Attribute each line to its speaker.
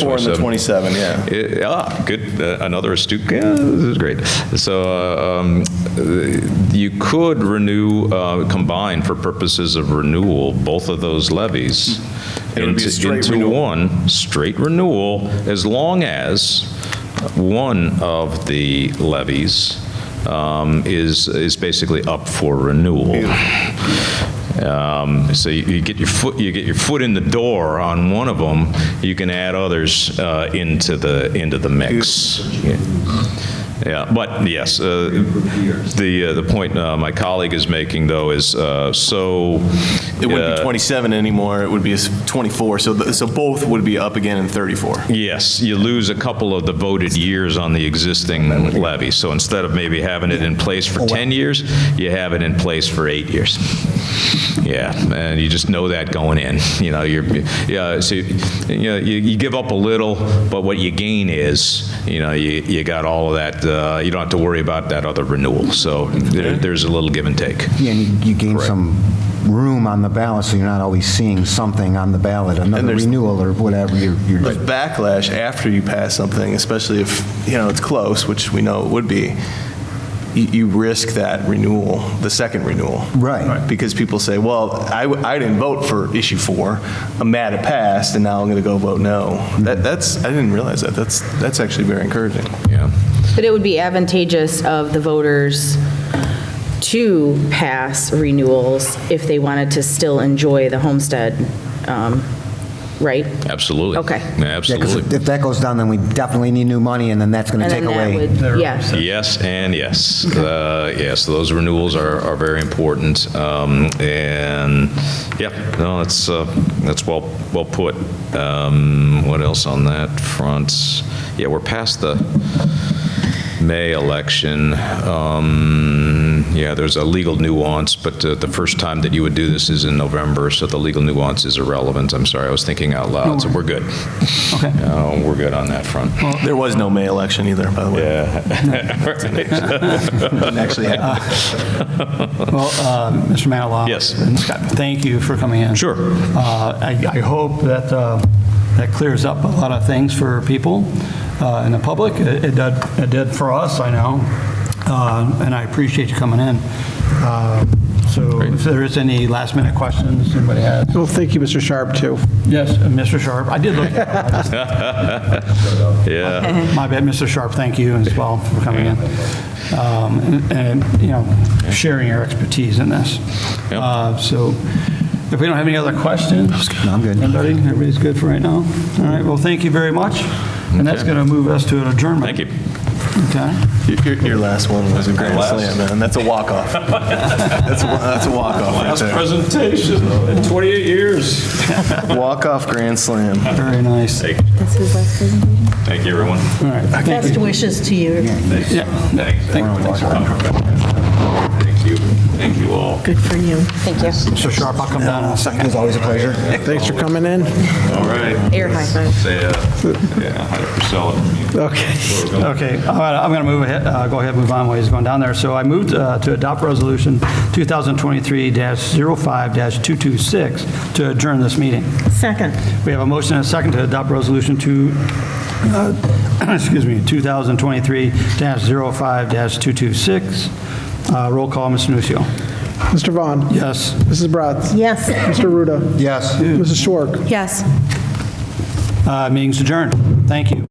Speaker 1: Four and the 27, yeah.
Speaker 2: Eh, ah, good. Uh, another astute. Yeah, this is great. So uh, um, uh, you could renew, uh, combine for purposes of renewal, both of those levies
Speaker 1: It would be a
Speaker 2: into,
Speaker 1: straight
Speaker 2: into
Speaker 1: renewal.
Speaker 2: one straight renewal, as long as one of the levies um, is is basically up for renewal. Um, So you you get your foot, you get your foot in the door on one of them, you can add others uh, into the, into the mix. Yeah, but yes, uh, the, uh, the point uh, my colleague is making, though, is uh, so.
Speaker 1: It wouldn't be
Speaker 2: uh,
Speaker 1: 27 anymore, it would be a s- 24, so, th- so both would be up again in 34.
Speaker 2: Yes, you lose a couple of the voted years on the existing levy. So instead of maybe having it in place for 10 years, you have it in place for eight years. Yeah, and you just know that going in, you know, you're, yeah, so, you know, you you give up a little, but what you gain is, you know, you you got all of that, uh, you don't have to worry about that other renewal. So there- there's a little give and take.
Speaker 3: Yeah, and you- you gain some room on the ballot, so you're not always seeing something on the ballot, another
Speaker 1: there's-
Speaker 3: renewal or whatever. You're, you're-
Speaker 1: There's backlash after you pass something, especially if, you know, it's close, which we know it would be, you, you risk that renewal, the second renewal.
Speaker 3: Right. Right.
Speaker 1: Because people say, well, I, w- I didn't vote for issue four, I'm mad it passed, and now I'm going to go vote no. That, that's, I didn't realize that, that's, that's actually very encouraging.
Speaker 2: Yeah.
Speaker 4: But it would be advantageous of the voters to pass renewals if they wanted to still enjoy the homestead, um, right?
Speaker 2: Absolutely.
Speaker 4: Okay.
Speaker 2: Yeah,
Speaker 3: Yeah, 'cause
Speaker 2: Absolutely.
Speaker 3: if that goes down, then we definitely need new money, and then that's going to
Speaker 4: And then
Speaker 3: take
Speaker 4: that
Speaker 3: away.
Speaker 4: would, yeah.
Speaker 2: Yes and yes. Uh, Yes, those renewals are, are very important. Um, And, yeah, no, that's, uh, that's well, well put. Um, What else on that front? Yeah, we're past the May election. Um, Yeah, there's a legal nuance, but uh, the first time that you would do this is in November, so the legal nuance is irrelevant. I'm sorry, I was thinking out loud, so we're good. Okay. We're good on that front.
Speaker 1: There was no May election either, by the way. Didn't actually happen.
Speaker 5: Well, uh, Mr. Manilow.
Speaker 2: Yes.
Speaker 5: and Scott, Thank you for coming in.
Speaker 2: Sure.
Speaker 5: Uh, I I hope that uh, that clears up a lot of things for people uh, in the public. It it did it did for us, I know, Uh, and I appreciate you coming in. Uh, So if there is any last-minute questions anybody has?
Speaker 6: Well, thank you, Mr. Sharp, too.
Speaker 5: Yes, uh, Mr. Sharp, I did look at it.
Speaker 2: Yeah.
Speaker 5: My bad, Mr. Sharp, thank you as well for coming in um, and, and, you know, sharing your expertise in this.
Speaker 2: Yep.
Speaker 5: Uh, So if we don't have any other questions?
Speaker 3: No, I'm good.
Speaker 5: Everybody, everybody's good for right now? All right, well, thank you very much. And that's going to move us to an adjournment.
Speaker 2: Thank you.
Speaker 5: Okay.
Speaker 1: Your- Your, your last one was a grand
Speaker 2: Last.
Speaker 1: slam, man. That's a walk-off. That's a, that's a walk-off right there.
Speaker 2: presentation in 28 years.
Speaker 1: Walk-off grand slam.
Speaker 5: Very nice. All
Speaker 2: Thank you, everyone.
Speaker 5: right. Thank you.
Speaker 7: Best wishes to you.
Speaker 5: Yeah.
Speaker 2: Thanks. Thank you. Thank you all.
Speaker 7: Good for you.
Speaker 5: So Sharp, I'll come down in a second.
Speaker 3: It was always a pleasure.
Speaker 6: Thanks for coming in.
Speaker 2: All right.
Speaker 4: Air high five.
Speaker 2: Say, uh, yeah, hi to Priscilla.
Speaker 6: Okay.
Speaker 5: Okay, all right, I'm going to move ahead, uh, go ahead, and move on while he's going down there. So I moved uh, to adopt Resolution 2023-05-226 to adjourn this meeting.
Speaker 7: Second.
Speaker 5: We have a motion and a second to adopt Resolution 2, uh, excuse me, 2023-05-226. Uh, Roll call, Mr. Nucio.
Speaker 6: Mr. Vaughn.
Speaker 5: Yes.
Speaker 6: Mrs. Bratz.
Speaker 7: Yes.
Speaker 6: Mr. Ruda.
Speaker 3: Yes.
Speaker 6: Mrs. Schwark.
Speaker 7: Yes.
Speaker 5: Uh, Meeting's adjourned. Thank you.